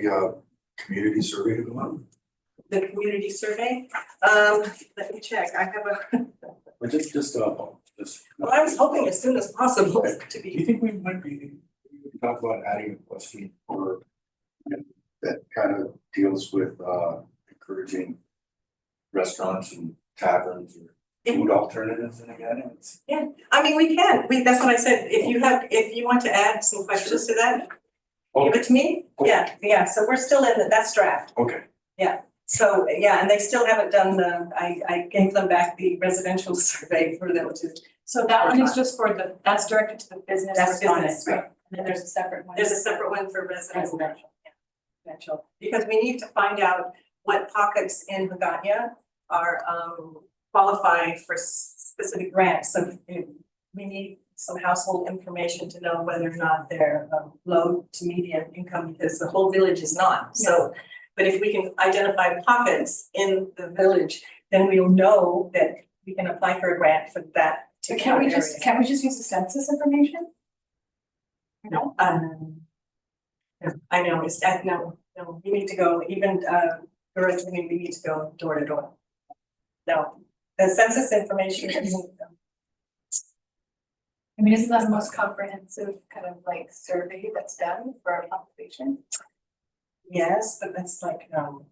the uh community survey to go out? the community survey. Um, let me check, I have a, But just, just, uh, just. well, I was hoping as soon as possible to Do be, you think we might be, we could talk about adding a question or that kind of deals with, uh, encouraging restaurants and taverns or food alternatives and again, it's. I mean, we can, we, that's what I said, if you have, if you want to add some questions to that, give it to me. Yeah, yeah, so we're still in, the that's draft, Okay, so, yeah, and they still haven't done the, I, I gave them back the residential survey for them to, So that one is just for the, that's directed to the business that's business, respondents, right? and then there's a separate one. There's a separate one for residential. Residential. potential, because we need to find out what pockets in Haggadah are um qualified for s- specific grants, so if we need some household information to know whether or not they're um low to medium income, because the whole village is not, so. But if we can identify pockets in the village, then we'll know that we can apply for a grant for that So particular can we area. just, can we just use the census information? No. Um. yeah, I know, it's, I know, no, we need to go, even, uh, Doris, I mean, we need to go door to door. No, the census information, um, I mean, isn't that the most comprehensive kind of like survey that's done for our population? yes, but that's like, um,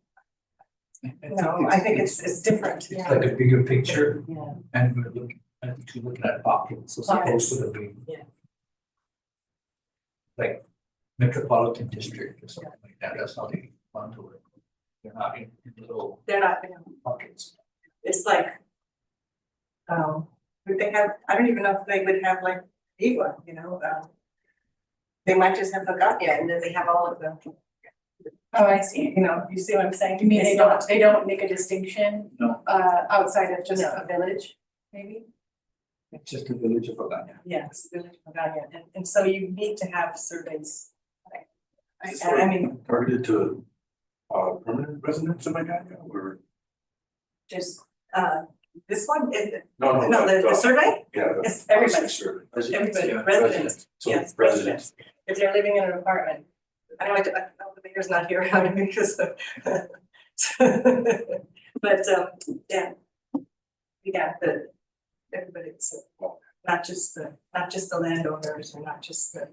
no, I think it's, it's different, It's yeah. like a bigger picture Yeah. and we're looking, I think you're looking at pockets as opposed to the big. Yeah. Like metropolitan district or something like that, that's not even fun to work. with. They're not in in little They're not, pockets. it's like, um, would they have, I don't even know if they would have like, Igwa, you know, um, they might just have Haggadah, and then they have all of them, Oh, I see. you know, you see what I'm saying? You mean they It's not- don't, they don't make a distinction? No. Uh, outside of just No. a village, maybe? It's just a village of Agana. Yes, Village of Pagania, and and so you need to have Is surveys. this And I mean, targeted to, uh, permanent residents of Magana or? just uh this one, it No, no. uh, no, the the survey, Yeah. the it's everybody, housing survey. everybody, Yeah, residents, So yes, residents, if they're living in an apartment. I know I, I know the mayor's not here, I mean, because of. But um, yeah. We got the everybody, so not just the, not just the landowners or not just the.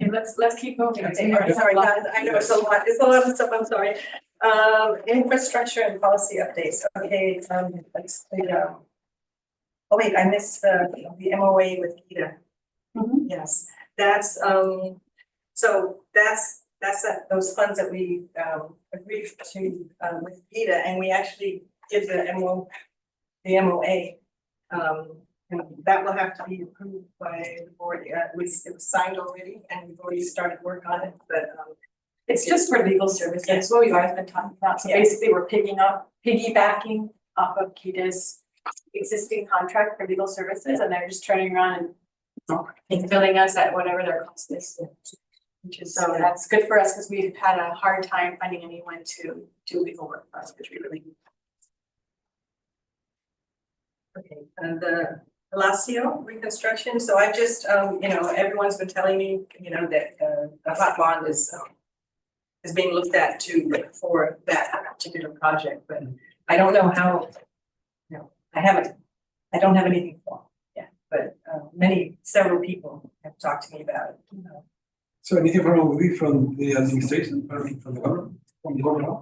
Okay, let's, let's keep moving. Okay, sorry, sorry, guys, I know it's a lot, it's a lot of stuff, I'm sorry. Um, infrastructure and policy updates, okay, um, let's, clear it up. Oh wait, I missed the, the MOA with Gita. Mhm. Yes, that's, um, so that's, that's that- those funds that we, um, agreed to, um, with PETA, and we actually did the MO, the MOA. Um, and that will have to be approved by the board, uh, it was, it was signed already, and we've already started work on it, but, um, It's just for legal services, that's what we've always been talking about, so Yeah. basically we're picking up, piggybacking off of Kita's existing contract for legal services, and they're just turning around and billing us at whatever their cost is. Which is, so that's good for us, because we've had a hard time finding anyone to do legal work for us, which we really. Okay, and the Palacio reconstruction, so I just, um, you know, everyone's been telling me, you know, that, uh, the hot bond is, um. Is being looked at too for that particular project, but I don't know how. You know, I haven't, I don't have anything for, it, yeah, but, uh, many, several people have talked to me about it, you know. So anything from, will be from the administration, or from the government, from the government?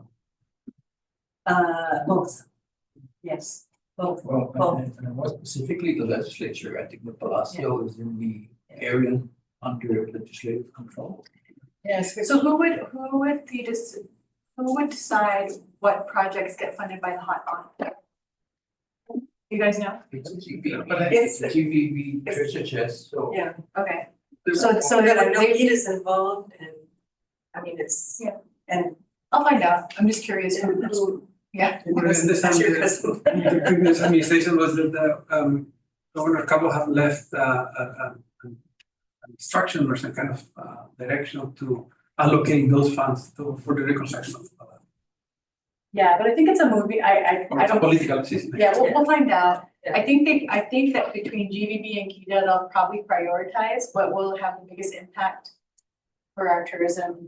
Uh, both. Yes, both, Well, Well- and- and more specifically, the legislature, I think the Palacio is in the area under legislative control. Yes. So who would, who would the, dis- who would decide what projects get funded by the hot bond? You guys know? It's a GVB, But I- it's a GVB, It's- treasure chest, so. yeah. Okay, so, so But I they're, know they Edith's involved and, I mean, it's. Yeah. And. I'll find out, I'm just curious who, who, yeah, this time, That's your the, cousin. the previous administration was that the, um, Governor Cabo have left, uh, a- a- an instruction or some kind of, uh, direction to allocate those funds to, for the reconstruction of. uh, yeah, but I think it's a movie, I, I, I Oh, It's a don't. political decision. Yeah, we'll, we'll find out, Yeah. I think they, I think that between GVB and Kita, they'll probably prioritize what will have the biggest impact for our tourism